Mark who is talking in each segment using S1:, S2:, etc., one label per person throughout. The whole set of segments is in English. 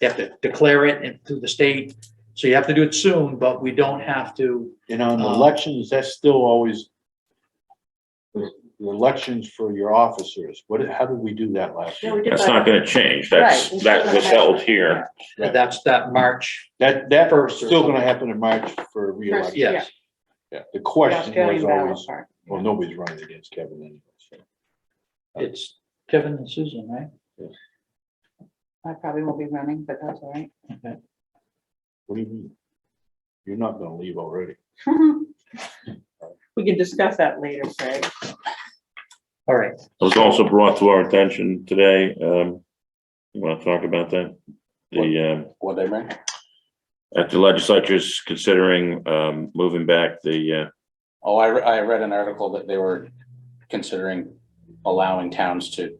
S1: They have to declare it and through the state. So you have to do it soon, but we don't have to,
S2: And on
S1: Um,
S2: elections, that's still always the the elections for your officers. What, how did we do that last
S3: Yeah,
S2: year?
S3: we did
S4: That's
S3: that.
S4: not gonna change. That's,
S3: Right.
S4: that was held here.
S2: Right.
S1: that's that March,
S2: That, that
S1: First or
S2: still gonna happen in March for
S3: First,
S2: reelection.
S1: yes.
S2: Yeah. The
S3: the
S2: question was
S3: Australian ballot
S2: always,
S3: part.
S2: well, nobody's running against Kevin anyway. so.
S1: It's Kevin and Susan, right?
S3: I probably won't be running, but that's all right.
S2: What do you mean? You're not gonna leave already.
S3: We can discuss that later, Craig.
S1: All right.
S4: It was also brought to our attention today. Um, you wanna talk about that? The, um,
S5: What they meant?
S4: at the legislature's considering, um, moving back the, uh,
S5: Oh, I, re- I read an article that they were considering allowing towns to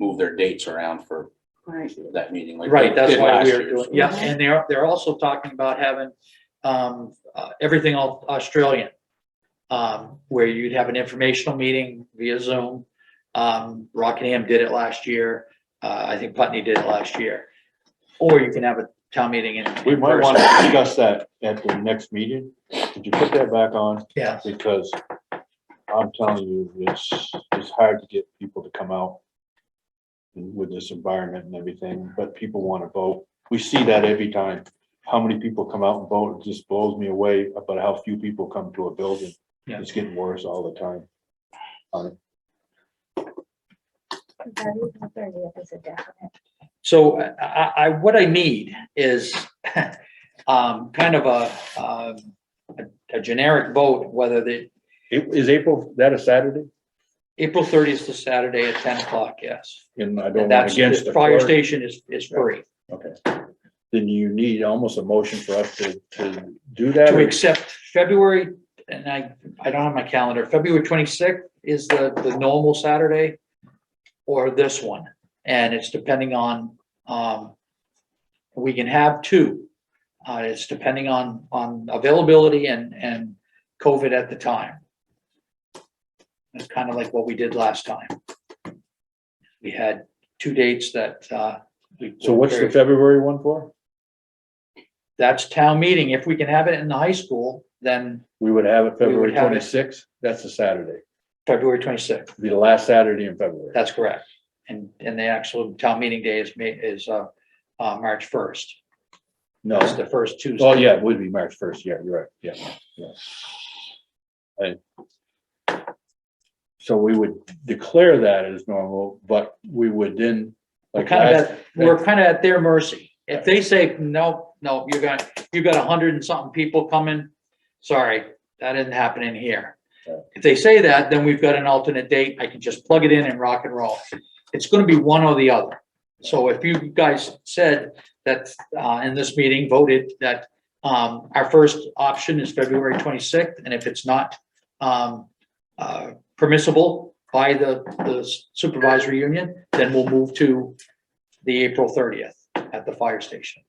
S5: move their dates around for
S3: Right.
S5: that meeting. like
S1: Right,
S5: they
S1: that's
S5: did
S1: why
S5: last
S1: we're
S5: year.
S1: doing, yeah, and they're, they're also talking about having, um, uh, everything all Australian. Um, where you'd have an informational meeting via Zoom. Um, Rockingham did it last year, uh, I think Putney did it last year. Or you can have a town meeting in.
S2: We
S1: in
S2: might
S1: person.
S2: wanna discuss that at the next meeting. Could you put that back on?
S1: Yeah,
S2: Because I'm telling you, it's, it's hard to get people to come out with this environment and everything, but people want to vote. We see that every time. How many people come out and vote, it just blows me away about how few people come to a building.
S1: Yeah.
S2: It's getting worse all the time.
S1: so I, I- I, what I need is, um, kind of a, um, a- a generic vote, whether the,
S2: Is April, that a Saturday?
S1: April thirtieth is Saturday at ten o'clock, yes.
S2: And I
S1: And that's, the fire station is, is free,
S2: Then you need almost a motion for us to, to do
S1: to accept February, and I, I don't have my calendar, February twenty-sixth is the, the normal Saturday. Or this one, and it's depending on, um, we can have two. Uh, it's depending on, on availability and, and COVID at the time. It's kind of like what we did last time. We had two dates that, uh. we-
S2: February one for?
S1: that's town meeting. If we can have it in the high school, then
S2: We would have it
S1: We would
S2: February
S1: have it.
S2: twenty-sixth, that's a Saturday,
S1: February twenty-sixth,
S2: be the last Saturday in February.
S1: that's correct. And, and the actual town meeting day is May, is, uh, uh, March first.
S2: No,
S1: That's the first Tuesday.
S2: oh yeah, it would be March first, yeah, you're right, yeah, yeah. I- So we would declare that as normal, but we would then,
S1: We're
S2: like,
S1: kind of,
S2: last-
S1: at- we're kind of at their mercy. If they say, no, no, you're gonna, you've got a hundred and something people coming, sorry, that isn't happening here.
S2: Right.
S1: If they say that, then we've got an alternate date. I can just plug it in and rock and roll. It's gonna be one or the other. So if you guys said that, uh, in this meeting voted that, um, our first option is February twenty-sixth, and if it's not, um, uh, permissible by the, the supervisory union, then we'll move to the April thirtieth at the fire station.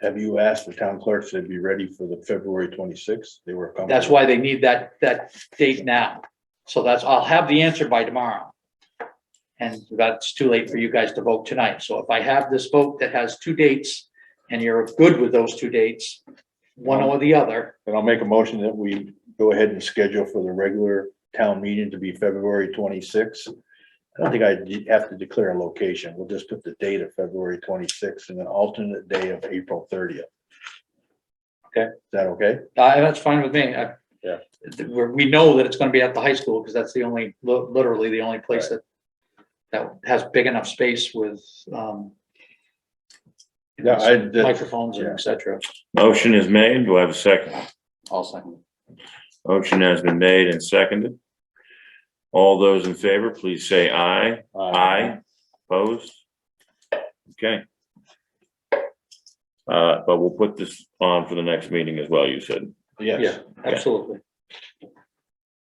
S2: have you asked the town clerks they'd be ready for the February twenty-sixth? They were. comfortable.
S1: That's why they need that, that date now. So that's, I'll have the answer by tomorrow. And that's too late for you guys to vote tonight. So if I have this vote that has two dates and you're good with those two dates, one or the other,
S2: And I'll make a motion that we go ahead and schedule for the regular town meeting to be February twenty-sixth. I don't think I de- have to declare a location. We'll just put the date of February twenty-sixth and an alternate day of April thirtieth.
S1: Okay.
S2: Is that okay?
S1: uh, that's fine with me. I-
S2: Yeah.
S1: We're, we know that it's gonna be at the high school because that's the only, li- literally the only place that that has big enough space with, um,
S2: Yeah, I, that-
S1: microphones and et cetera.
S4: motion is made. Do I have a second?
S5: All second.
S4: Motion has been made and seconded. All those in favor, please say aye.
S2: uh,
S4: Aye. Opposed? Okay. Uh, but we'll put this on for the next meeting as well, you said.
S2: yes,
S1: Absolutely.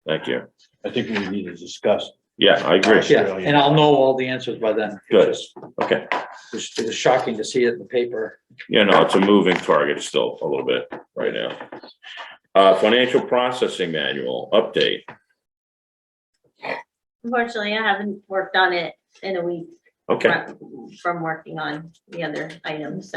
S4: Thank you.
S2: I think we need to discuss.
S4: Yeah, I agree.
S1: Yeah, and I'll know all the answers by then. It's
S4: Good.
S1: just-
S4: Okay.
S1: It's it's shocking to see it in the paper.
S4: Yeah, no, it's a moving target still a little bit right now. Uh, financial processing manual update.
S6: Unfortunately, I haven't worked on it in a week
S4: Okay.
S6: from from working on the other items.